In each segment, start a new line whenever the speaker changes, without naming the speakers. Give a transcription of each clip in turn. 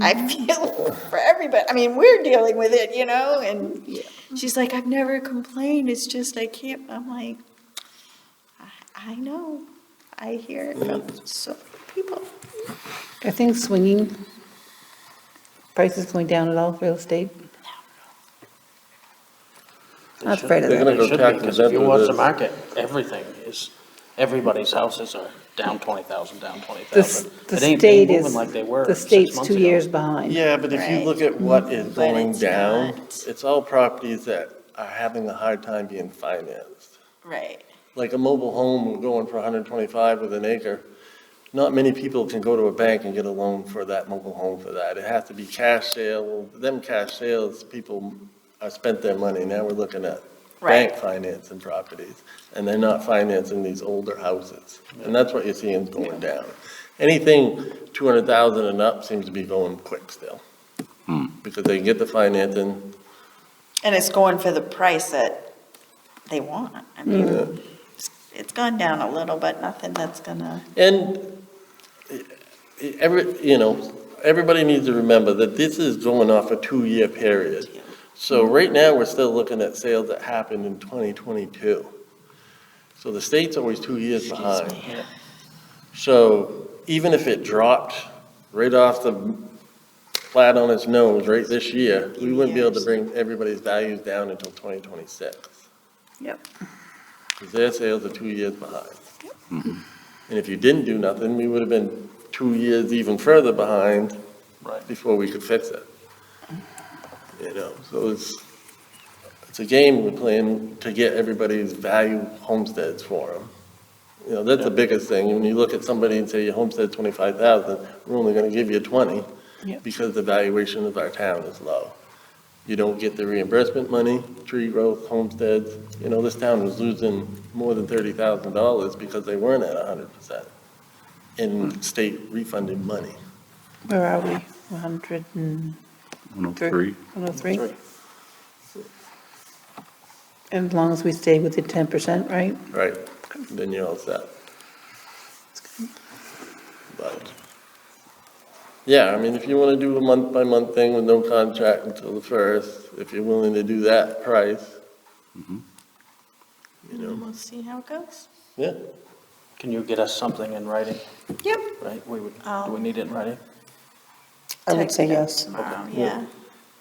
I feel for everybody. I mean, we're dealing with it, you know, and she's like, I've never complained. It's just I can't. I'm like, I, I know. I hear it from so people.
Are things swinging? Prices going down at all, real estate? I'm not afraid of
They're
that.
gonna go
It should be,
tackle
'cause if you
that
watch
with
the
this.
market, everything is, everybody's houses are down twenty thousand, down twenty
The s-
thousand.
the
It ain't been
state
moving
is,
like they were
the
six
state's
months
two
ago.
years behind.
Yeah, but if you
Right. Mm-hmm.
look at what is
But
going
it's
down,
not.
it's all properties that are having a hard time being financed.
Right.
Like a mobile home going for hundred and twenty-five with an acre, not many people can go to a bank and get a loan for that mobile home for that. It has to be cash sale, them cash sales, people are spent their money, now we're looking at
Right.
bank financing properties, and they're not financing these older houses. And that's what you're seeing going down. Anything two hundred thousand and up seems to be going quick still. Because they can get the financing,
And it's going for the price that they want. I mean, it's- it's gone down a little, but nothing that's gonna.
and eh, eh, every, you know, everybody needs to remember that this is going off a two-year period. So right now, we're still looking at sales that happened in twenty twenty-two. So the state's always two years behind. So even if it dropped right off the flat on its nose right this year, we wouldn't be able to bring everybody's values down until 2026.
Yep.
Because their sales are two years behind. And if you didn't do nothing, we would have been two years even further behind
Right.
before we could fix it. You know, so it's, it's a game we're playing to get everybody's value homesteads for them. You know, that's the biggest thing, when you look at somebody and say, your homestead's twenty-five thousand, we're only gonna give you twenty,
Yep.
because the valuation of our town is low. You don't get the reimbursement money, tree growth, homesteads, you know, this town was losing more than thirty thousand dollars because they weren't at hundred percent in state refunded money.
Where are we? 100 and...
103.
103? And As long as we stay within 10%, right?
Right, then you're all set. But, yeah, I mean, if you want to do a month-by-month thing with no contract until the first, if you're willing to do that price, you know,
We'll see how it goes.
yeah,
Can you get us something in writing,
Yep.
right? We would, do
I'll-
Oh.
we need it in writing?
I would
Text
say
it
yes.
Tomorrow,
Okay.
yeah.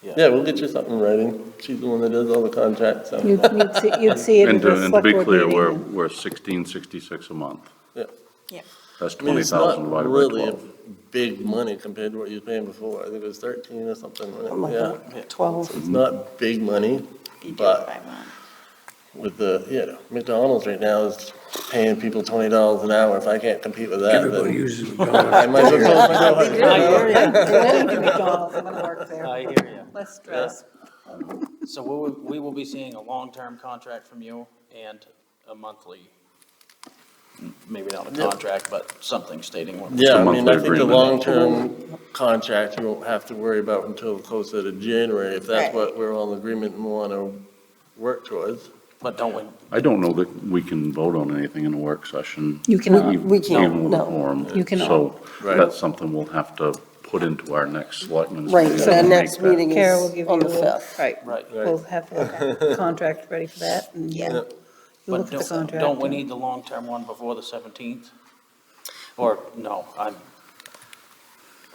yeah, we'll get you something in writing. She's the one that does all the contracts, so,
You'd you'd see- you'd see it
And
at
to,
the
and to
select
be
board
clear, we're,
meeting.
we're sixteen sixty-six a month.
yeah.
Yep.
That's
I mean,
twenty
it's not
thousand divided by
really a
twelve.
big money compared to what you were paying before. I think it was thirteen or something,
Something
wasn't it? yeah.
like that, 12.
It's not big money,
You do
But-
it by month.
with the, you know, McDonald's right now is paying people twenty dollars an hour. If I can't compete with that,
Everybody
then
uses McDonald's.
I might as well. close my door.
I'm going to McDonald's, I'm going to work there.
I hear
Less stress.
you. So we will, we will be seeing a long-term contract from you and a monthly, maybe not a
Yeah.
contract, but something stating what.
Yeah, I
It's a
mean, I think the
monthly agreement.
long-term contract, you won't have to worry about until closer to January, if
Right.
that's what we're all in agreement and wanna work towards.
But don't we,
I don't know that we can vote on anything in a work session.
You cannot.
even-
We can't,
Even with a
no.
quorum.
You cannot.
So
Right.
that's something we'll have to put into our next selectmen's
Right,
meeting
so our
and make
next
that-
meeting
Kara will give
is
you.
on the
a-
5th.
Right,
right,
we'll have a contract ready for that, and
Yeah.
you'll
but
look at the
don't,
contract.
don't we need the long-term one before the seventeenth? Or, no, I'm,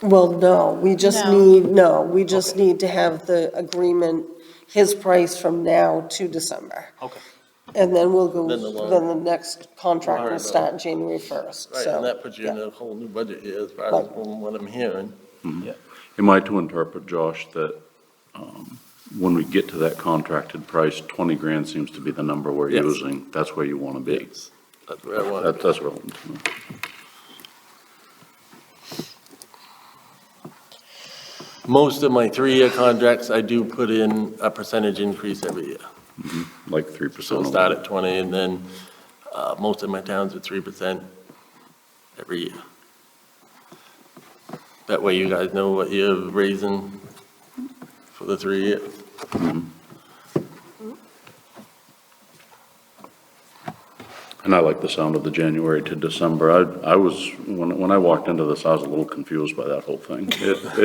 Well, no, we just
No.
need, no, we just need to have the agreement, his price from now to December.
okay.
And then we'll go,
Then the loan.
then the next contract
Alright.
will start January 1st,
Right,
so.
and that puts you in
yeah.
a whole new budget year as far as
Right.
from what I'm hearing.
Am I to interpret, Josh, that, um, when we get to that contracted price, twenty grand seems to be the number we're
Yes.
using? That's where you want to be?
That's where I want it.
That- That's what I want to know.
Most of my three-year contracts, I do put in a percentage increase every year.
like three
So
percent.
we'll start at 20, and then uh, most of my towns are 3% every year. That way you guys know what you're raising for the three years.
And I like the sound of the January to December. I, I was, when, when I walked into this, I was a little confused by that whole thing. It,